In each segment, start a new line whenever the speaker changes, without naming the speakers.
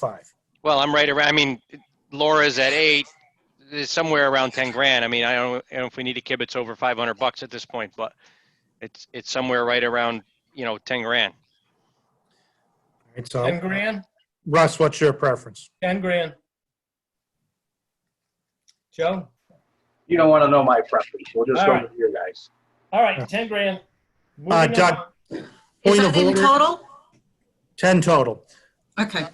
five.
Well, I'm right around, I mean, Laura's at eight, it's somewhere around ten grand. I mean, I don't, I don't know if we need to kibitz over five hundred bucks at this point, but it's, it's somewhere right around, you know, ten grand.
All right,
10
so
grand,
Russ, what's your preference?
10 grand. Joe?
You don't want to know my preference. We'll just go
All right.
with your guys.
All right, 10 grand.
Uh,
Moving
Doug,
on.
Is
Point of
that in
order.
total?
10 total.
Okay,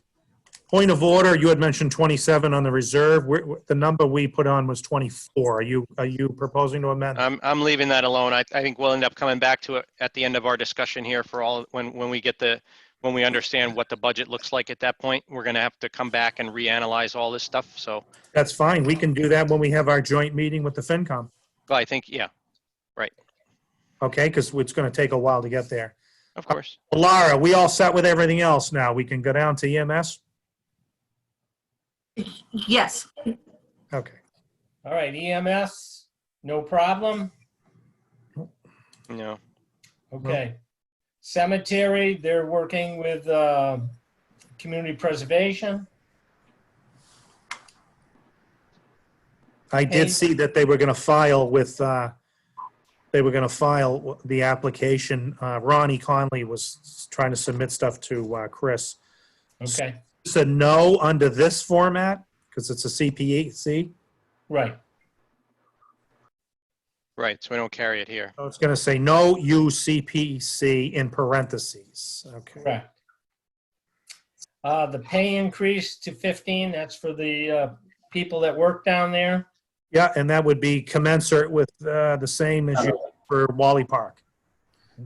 Point of order, you had mentioned 27 on the reserve. We're- we're- The number we put on was 24. Are you, are you proposing to amend?
I'm, I'm leaving that alone. I, I think we'll end up coming back to it at the end of our discussion here for all, when, when we get the, when we understand what the budget looks like at that point, we're gonna have to come back and reanalyze all this stuff, so,
That's fine. We can do that when we have our joint meeting with the FinCom,
but I think, yeah,
okay? Because it's going to take a while to get there.
of course.
Laura, we all set with everything else now. We can go down to E EMS?
yes.
Okay.
All right, EMS, no problem.
No,
Okay. Cemetery, they're working with uh, community preservation.
I
Hey.
did see that they were going to file with, uh, they were going to file the application. Uh, Ronnie Conley was trying to submit stuff to uh, Chris.
Okay,
It's a no under this format because it's a CPC.
right.
right, so we don't carry it here.
So it's going to say no UCPC in parentheses. Okay.
Correct. Uh, the pay increase to 15, that's for the, uh, people that work down there.
Yeah, and that would be commensurate with uh, the same as you for Wally Park.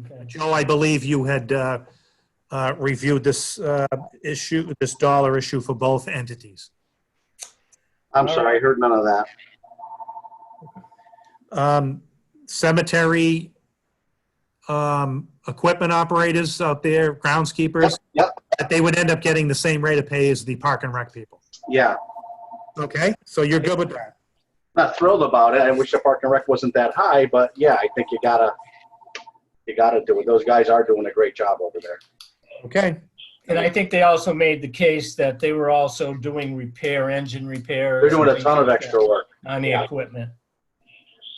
Okay.
Joe, I believe you had uh, uh, reviewed this uh, issue, this dollar issue for both entities.
I'm sorry, I heard none of that.
Um, Cemetery um, equipment operators out there, groundskeepers,
Yep,
that they would end up getting the same rate of pay as the park and rec people.
yeah.
Okay, so you're good with that.
Not thrilled about it. I wish the parking rec wasn't that high, but yeah, I think you gotta, you gotta do it. Those guys are doing a great job over there.
Okay.
And I think they also made the case that they were also doing repair, engine repair.
They're doing a ton of extra work.
On the
Yeah.
equipment.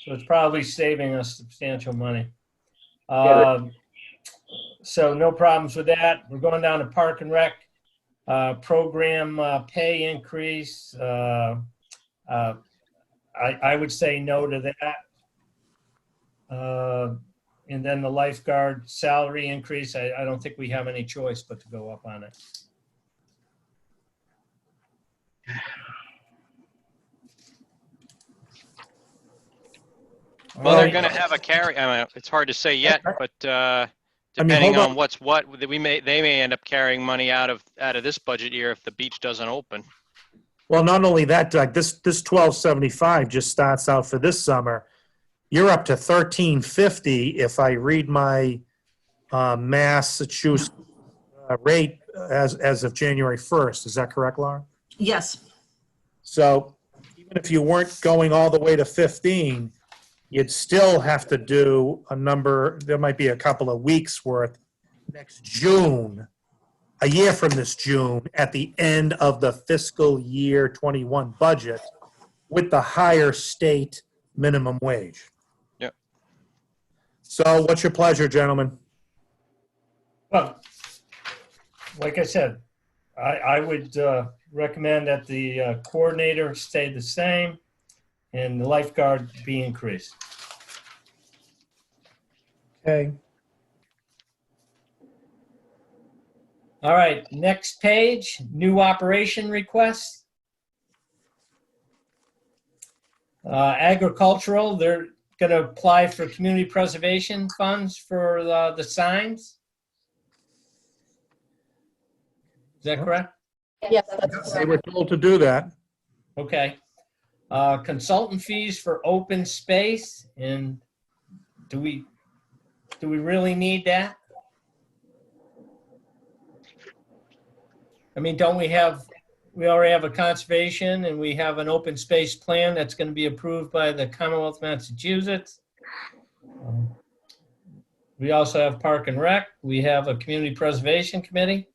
So it's probably saving us substantial money.
Yeah.
Um, So no problems with that. We're going down to Park and Rec. uh, Program uh, pay increase. uh, uh, I, I would say no to that. Uh, And then the lifeguard salary increase, I, I don't think we have any choice but to go up on it.
Well, they're
Right.
gonna have a carry, I mean, it's hard to say yet, but, uh,
I mean,
depending
hold
on what's what, that we may, they may end up carrying money out of, out of this budget year if the beach doesn't open.
Well, not only that, Doug, this, this twelve seventy-five just starts out for this summer. You're up to thirteen fifty if I read my, uh, Massachusetts uh, rate as, as of January first. Is that correct, Laura?
Yes,
So even if you weren't going all the way to 15, you'd still have to do a number, there might be a couple of weeks worth next June, a year from this June, at the end of the fiscal year 21 budget with the higher state minimum wage.
Yep.
So what's your pleasure, gentlemen?
Well, like I said, I, I would uh, recommend that the uh, coordinator stay the same and the lifeguard be increased.
Okay.
All right, next page, new operation request. Uh, Agricultural, they're going to apply for community preservation funds for uh, the the signs. Is that correct?
Yes, that's
They
correct.
were told to do that.
Okay. Uh, Consultant fees for open space, and do we, do we really need that? I mean, don't we have, we already have a conservation and we have an open space plan that's going to be approved by the Commonwealth of Massachusetts. Um, We also have Park and Rec, we have a Community Preservation Committee.